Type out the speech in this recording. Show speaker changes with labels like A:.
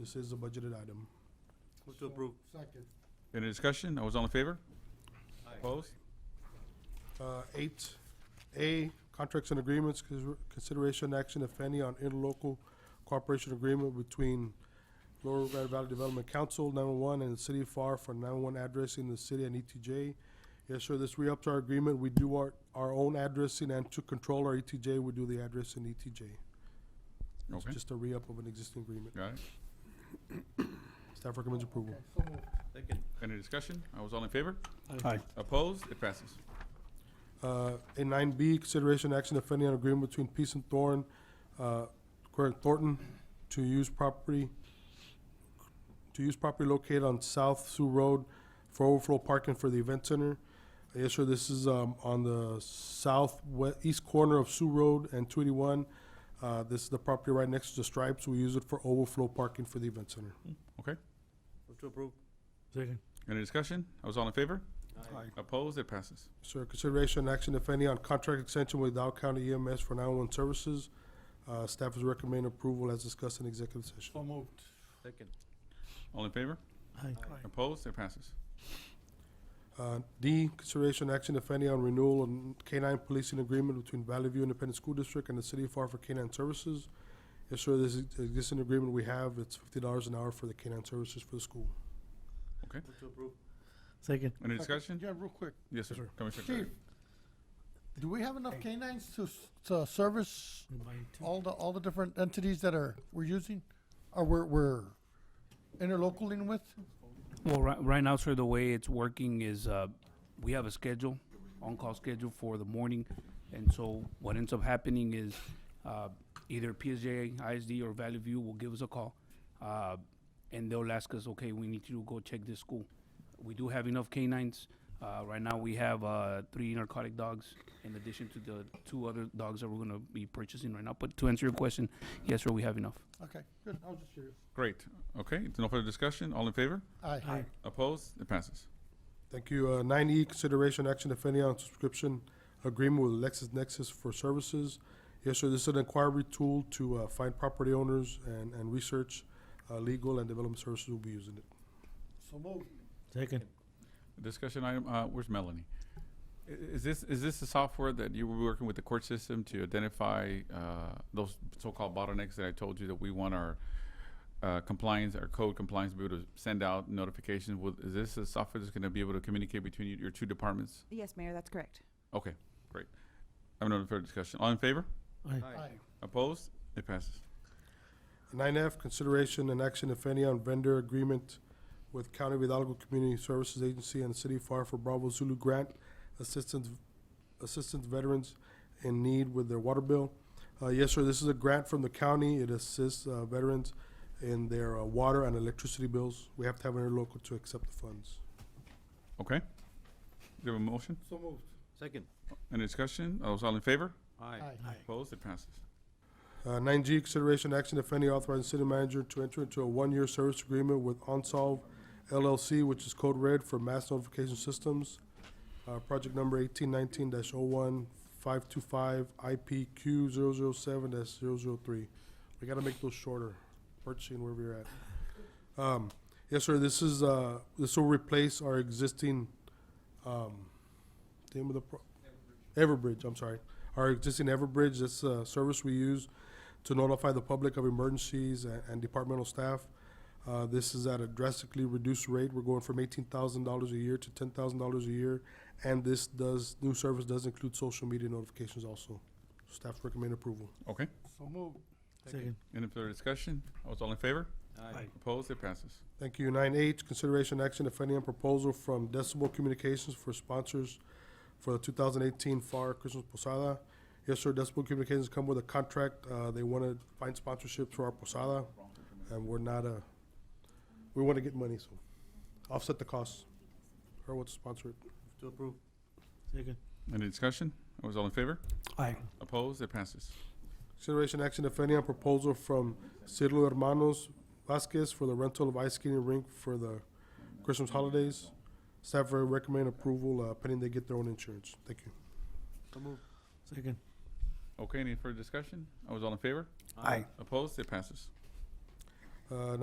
A: This is a budgeted item.
B: Move to approve.
C: Second.
D: Any discussion? All those all in favor? Opposed?
A: Uh, Eight A, contracts and agreements, consider- consideration action, if any, on interlocal cooperation agreement between Lower Red Valley Development Council, nine-one-one, and the City of FAR for nine-one addressing the city and ETJ. Yes, sir, this re-ups our agreement. We do our, our own addressing, and to control our ETJ, we do the address in ETJ. It's
D: Okay.
A: just a re-up of an existing agreement.
D: Got it.
A: Staff recommends approval.
C: So moved.
B: Second.
D: Any discussion? All those all in favor?
E: Aye.
D: Opposed? It passes.
A: Uh, A nine B, consideration action if any on agreement between Peace and Thorn, uh, current Thornton, to use property, to use property located on South Sioux Road for overflow parking for the event center. Yes, sir, this is, um, on the southwest, east corner of Sioux Road and two eighty-one. Uh, this is the property right next to the Stripes. We use it for overflow parking for the event center.
D: Okay.
B: Move to approve.
E: Second.
D: Any discussion? All those all in favor?
B: Aye.
D: Opposed? It passes.
A: Sir, consideration and action, if any, on contract extension with Dow County EMS for 911 services. Uh, Staff is recommending approval as discussed in executive session.
C: So moved.
B: Second.
D: All in favor?
E: Aye.
D: Opposed? It passes.
A: Uh, D, consideration and action, if any, on renewal and K-9 policing agreement between Valley View Independent School District and the City of FAR for K-9 services. Yes, sir, this is existing agreement we have. It's $50 an hour for the K-9 services for the school.
B: Move to approve.
E: Second.
D: Any
C: Second.
D: discussion?
C: Yeah, real quick.
D: Yes, sir.
A: sir.
D: Commissioner
C: Chief,
D: Carrera.
C: do we have enough canines to, s- to service all the, all the different entities that are, we're using? Or we're, we're interlocaling with?
F: Well, right, right now, sir, the way it's working is, uh, we have a schedule, on-call schedule for the morning. And so what ends up happening is, uh, either PSJ, ISD, or Valley View will give us a call. Uh, and they'll ask us, okay, we need you to go check this school. We do have enough canines. Uh, right now, we have, uh, three narcotic dogs in addition to the two other dogs that we're gonna be purchasing right now. But to answer your question, yes, sir, we have enough.
C: Okay, good, I was just curious.
D: Great. Okay. No further discussion? All in favor?
C: Aye.
D: Opposed? It passes.
A: Thank you. Nine E, consideration action, if any, on subscription agreement with LexisNexis for services. Yes, sir, this is an inquiry tool to uh, find property owners and, and research. Uh, Legal and development services will be using it.
C: So moved.
E: Second.
D: Discussion item, uh, where's Melanie? I- Is this, is this the software that you were working with the court system to identify, uh, those so-called bottlenecks that I told you that we want our, uh, compliance, our code compliance to be able to send out notifications with, is this a software that's gonna be able to communicate between you- your two departments?
G: Yes, Mayor, that's correct.
D: Okay, great. I have no further discussion. All in favor?
C: Aye.
D: Opposed? It passes.
A: Nine F, consideration and action, if any, on vendor agreement with County of Hidalgo Community Services Agency and City of FAR for Bravo Zulu Grant Assistance, Assistance Veterans in Need with their water bill. Uh, yes, sir, this is a grant from the county. It assists, uh, veterans in their, uh, water and electricity bills. We have to have an interlocal to accept the funds.
D: Okay? Do you have a motion?
C: So moved.
B: Second.
D: Any discussion? All those all in favor?
B: Aye.
D: Opposed? It passes.
A: Uh, nine G, consideration action, if any, authorizing city manager to enter into a one-year service agreement with Onsolve LLC, which is code red for mass notification systems. Uh, project number eighteen nineteen dash oh one five two five IPQ zero zero seven dash zero zero three. We gotta make those shorter, purchasing wherever you're at. Um, yes, sir, this is, uh, this will replace our existing, um, name of the pro- Everbridge, I'm sorry. Our existing Everbridge, this, uh, service we use to notify the public of emergencies and, and departmental staff. Uh, this is at a drastically reduced rate. We're going from eighteen thousand dollars a year to ten thousand dollars a year. And this does, new service does include social media notifications also. Staff recommend approval.
D: Okay?
C: So moved.
E: Second.
D: Any further discussion? All those all in favor?
B: Aye.
D: Opposed? It passes.
A: Thank you. Nine H, consideration action, if any, on proposal from Decibel Communications for sponsors for the two thousand eighteen FAR Christmas Posada. Yes, sir, Decibel Communications come with a contract. Uh, they want to find sponsorships for our Posada, and we're not a, we want to get money, so offset the costs. Or what to sponsor it.
B: To approve.
E: Second.
D: Any discussion? All those all in favor?
E: Aye.
D: Opposed? It passes.
A: Consideration action, if any, on proposal from Cirlo Hermanos Vasquez for the rental of ice skating rink for the Christmas holidays. Staff recommend approval uh, pending they get their own insurance. Thank you.
B: So moved.
E: Second.
D: Okay, any further discussion? I was all in favor? Opposed? It passes.
A: Uh,